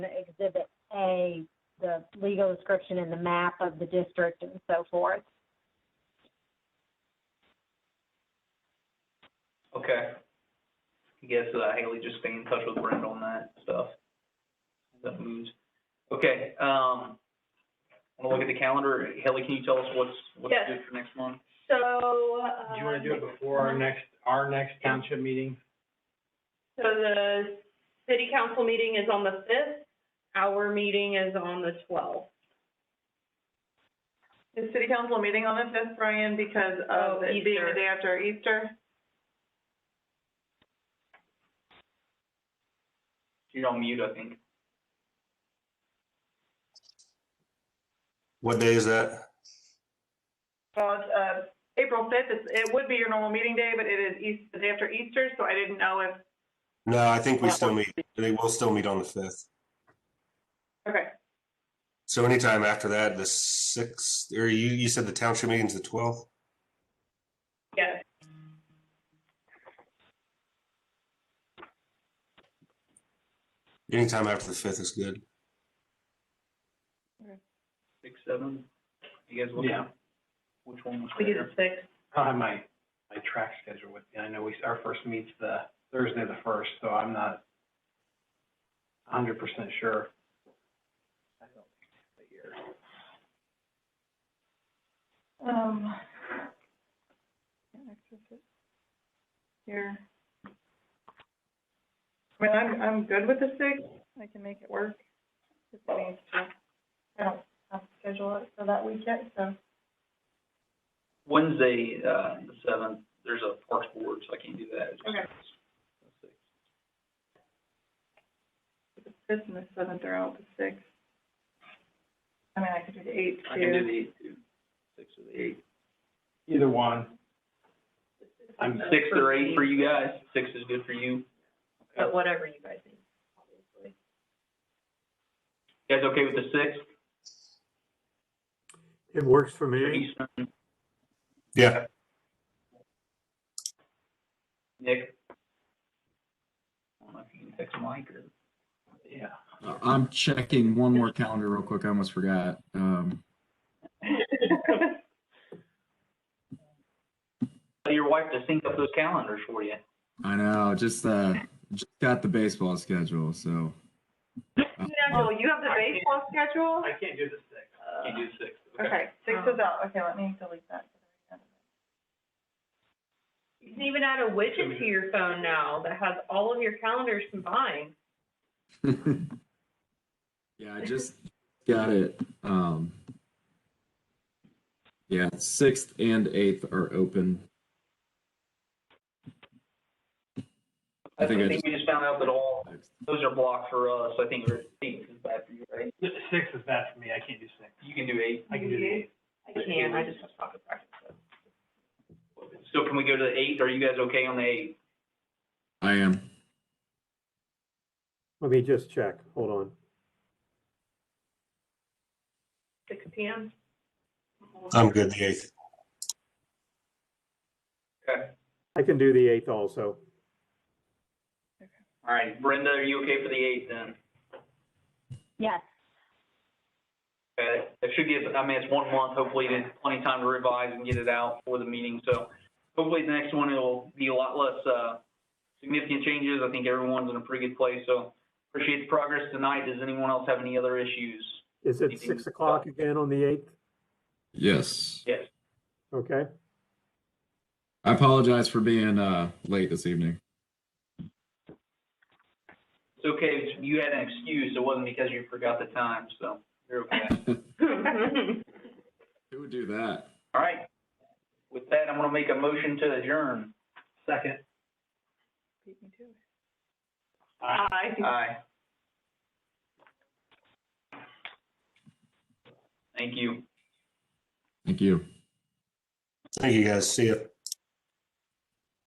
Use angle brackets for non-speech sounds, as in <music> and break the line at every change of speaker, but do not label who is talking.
Exhibit A, the legal description and the map of the district and so forth.
Okay. I guess uh, Haley just stay in touch with Brent on that stuff. That moves. Okay, um, I wanna look at the calendar. Haley, can you tell us what's, what's
Yes.
good for next month?
So,
Do you wanna do it
um,
before our next, our next township meeting?
So the city council meeting is on the fifth, our meeting is on the twelfth.
Is city council meeting on the fifth, Brian, because of
Oh,
it being
Easter.
the day after Easter?
You're on mute, I think.
What day is that?
Well, it's, uh, April fifth, it's, it would be your normal meeting day, but it is East, the day after Easter, so I didn't know if,
No, I think we still meet, they will still meet on the fifth.
okay.
So anytime after that, the sixth, or you, you said the township meeting's the twelfth?
Yes.
Anytime after the fifth is good.
Six, seven? You guys look
Yeah.
at which one was
We do
better?
the sixth.
I have my, my track schedule with me. I know we, our first meet's the Thursday the first, so I'm not a hundred percent sure. I don't think it's the year.
Um. Here. I mean, I'm, I'm good with the sixth, I can make it work. Just needs to- I don't have to schedule it for that week yet, so.
Wednesday, uh, the seventh, there's a parks board, so I can't do that.
Okay. The fifth and the seventh are out, the sixth. I mean, I could do the eighth too.
I can do the eighth, too. Six or the eighth.
Either one. I'm,
Six or eight for you guys. Six is good for you.
But whatever you guys think, obviously.
You guys okay with the sixth?
It works for me.
Eastern,
Yeah,
Nick? I don't know if you can text Mike or.
yeah.
Uh, I'm checking one more calendar real quick. I almost forgot. Um,
Tell your wife to sync up those calendars for you.
I know, just uh, just got the baseball schedule, so <laughs>
Oh,
No, you have the baseball schedule?
I can't do the sixth.
Can't do six.
Okay, six is out, okay, let me delete that.
You can even add a widget to your phone now that has all of your calendars combined.
yeah, I just got it. Um, yeah, sixth and eighth are open. I think I just-
we just found out that all, those are blocked for us. I think we're eight is bad for you, right?
The sixth is bad for me. I can't do six.
You can do eight.
I can do the eighth.
I can, I just have soccer practice. so.
So can we go to the eight? Are you guys okay on the eight?
I am.
Let me just check. Hold on.
Six P M. <laughs>
I'm good, the eighth.
Okay.
I can do the eighth also.
All right. Brenda, are you okay for the eight then?
Yes.
Okay. That should give, I mean, it's one month. Hopefully there's plenty of time to revise and get it out for the meeting. So hopefully the next one, it'll be a lot less, uh, significant changes. I think everyone's in a pretty good place. So appreciate the progress tonight. Does anyone else have any other issues?
Is it six o'clock again on the eighth?
Yes.
Yes.
Okay.
I apologize for being uh, late this evening.
It's okay, you had an excuse, it wasn't because you forgot the time, so you're okay.
Who would do that?
All right, with that, I'm gonna make a motion to adjourn.
Second.
Beat me to it.
Aye.
Aye. Thank you.
Thank you.
Thank you, guys. See ya.